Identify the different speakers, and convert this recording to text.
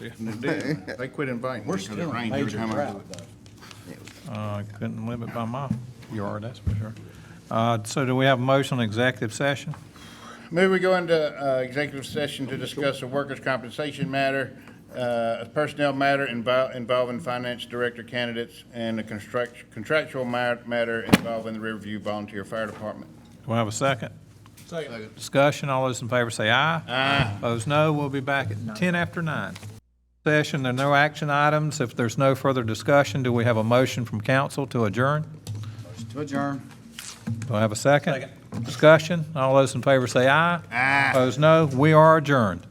Speaker 1: Yeah, They did. They quit inviting me
Speaker 2: We're
Speaker 1: because it
Speaker 2: still in
Speaker 1: rained every
Speaker 2: major
Speaker 1: time I do
Speaker 2: drought,
Speaker 1: it.
Speaker 2: though.
Speaker 3: Uh, Couldn't live it by my yard, that's for sure. Uh, So do we have a motion on executive session?
Speaker 1: Maybe we go into uh, executive session to discuss a workers' compensation matter, uh, a personnel matter invol- involving finance director candidates, and a construct- contractual ma- matter involving the Riverview Volunteer Fire Department.
Speaker 3: Do we have a second? Second. Discussion, all those in favor say aye. Aye. Opposed, no. We'll be back at 10 after 9. Session, there are no action items. If there's no further discussion, do we have a motion from council to adjourn?
Speaker 2: To adjourn.
Speaker 3: Do
Speaker 2: Ah.
Speaker 3: I have a second? Discussion, all those in favor say aye. Aye. Opposed, no. We are adjourned.